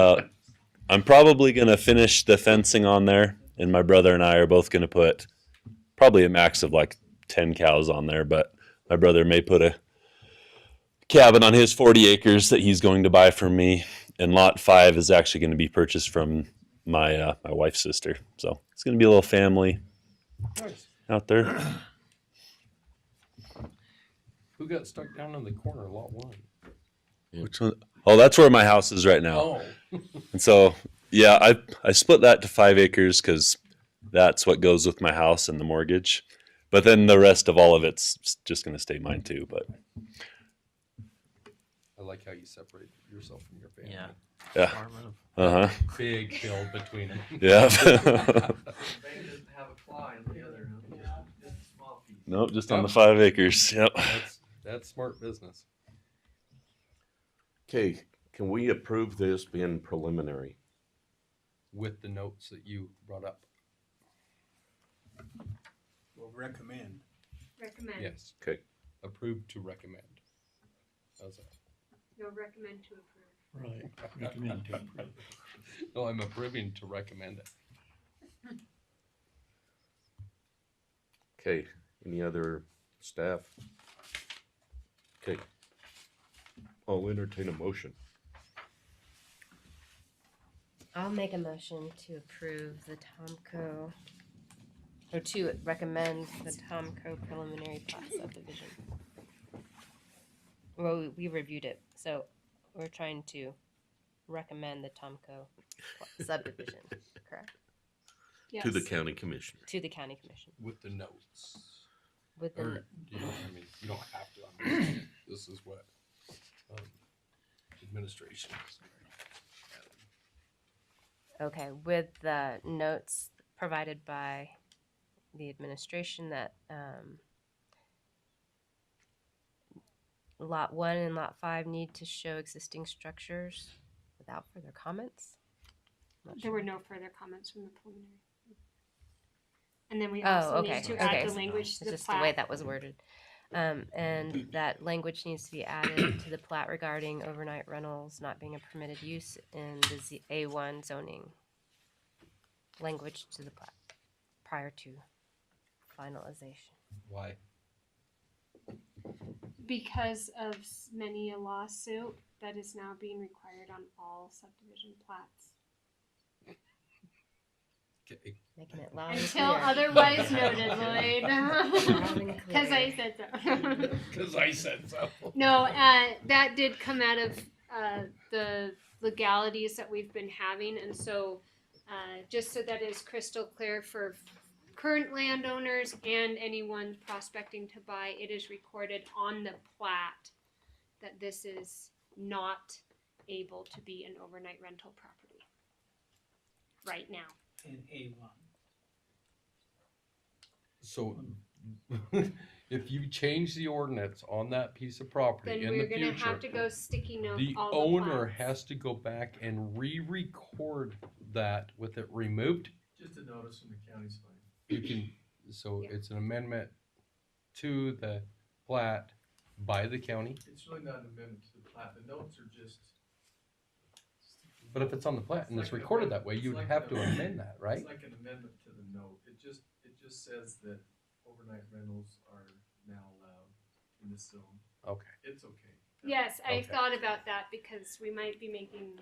Uh, I'm probably gonna finish the fencing on there, and my brother and I are both gonna put probably a max of like ten cows on there, but my brother may put a cabin on his 40 acres that he's going to buy from me, and lot five is actually going to be purchased from my uh, my wife's sister. So it's gonna be a little family out there. Who got stuck down in the corner, lot one? Which one? Oh, that's where my house is right now. Oh, And so, yeah, I I split that to five acres because that's what goes with my house and the mortgage. But then the rest of all of it's s- just going to stay mine too. But I like how you separate yourself from your family. Yeah. yeah, Department of- uh huh, Big hill between them. yeah. They just have a fly on the other, just, just a small piece. nope, just on the five acres. Yep. That's, that's smart business. Okay, can we approve this being preliminary? With the notes that you brought up, will recommend. Recommend. yes, Okay, approved to recommend. How's that? No, recommend to approve. Right, recommend to approve. No, Oh, I'm approving to recommend it. okay, any other staff? Okay. I'll entertain a motion. I'll make a motion to approve the Tomco, or to recommend the Tomco preliminary plat subdivision. Well, we- we reviewed it, so we're trying to recommend the Tomco plat subdivision, correct? Yes. To the county commissioner. To the county commission With the notes. with the Or, you know, I mean, you don't have to, I'm just saying, this is what, um, administration is. Okay, with the notes provided by the administration that, um, lot one and lot five need to show existing structures without further comments? Not There sure. were no further comments from the preliminary. And then we Oh, also okay, need to okay. add the language It's to the just the way plat. that was worded. Um, and that language needs to be added to the plat regarding overnight rentals not being a permitted use in the Z, A one zoning. Language to the plat prior to finalization. Why? Because of s- many a lawsuit that is now being required on all subdivision plats. Okay, Making it loud and Until clear. otherwise noted, Lloyd. Loud and Cause I clear. said so. Cause I said so. No, uh, that did come out of uh, the legalities that we've been having, and so uh, just so that is crystal clear for current landowners and anyone prospecting to buy, it is recorded on the plat that this is not able to be an overnight rental property right now. In A one. So, if you change the ordinance on that piece of property Then in the we're gonna have to future, go sticky note the all owner plats. has to go back and re-record that with it removed. Just a notice from the county's fine. You can, so Yeah. it's an amendment to the plat by the county, It's really not an amendment to the plat, the notes are just. but if it's on the plat and it's recorded that way, you'd have to amend that, right? It's like an amendment to the note, it just, it just says that overnight rentals are now allowed in this zone, Okay, it's okay. Yes, I Okay. thought about that because we might be making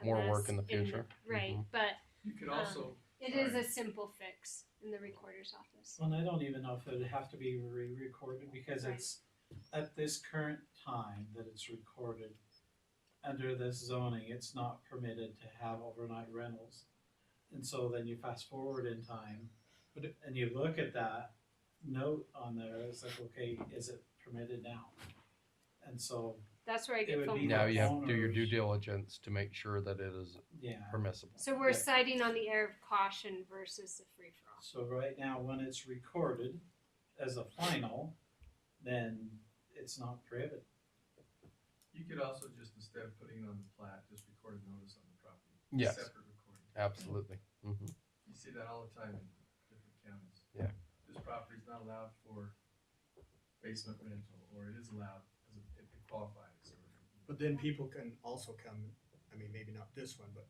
a More work mess in the future. right, Mhm. but You could also. it is sorry. a simple fix in the recorder's office. Well, I don't even know if it'd have to be re-recorded because Right. it's at this current time that it's recorded. Under this zoning, it's not permitted to have overnight rentals. And so then you fast forward in time, but, it- and you look at that note on there, it's like, okay, is it permitted now? And so, That's where I It get would phone be Now calls. you have to do your due Owners. diligence to make sure that it is yeah. permissible. So we're Yeah. citing on the air of caution versus the free for all. So right now, when it's recorded as a final, then it's not prohibited. You could also just, instead of putting it on the plat, just record a notice on the property. Yes. Separate recording. Absolutely. Mhm. You see that all the time in different counties. Yeah. This property's not allowed for basement rental, or it is allowed as a- if it qualifies. or- But then people can also come I mean, maybe not this one, but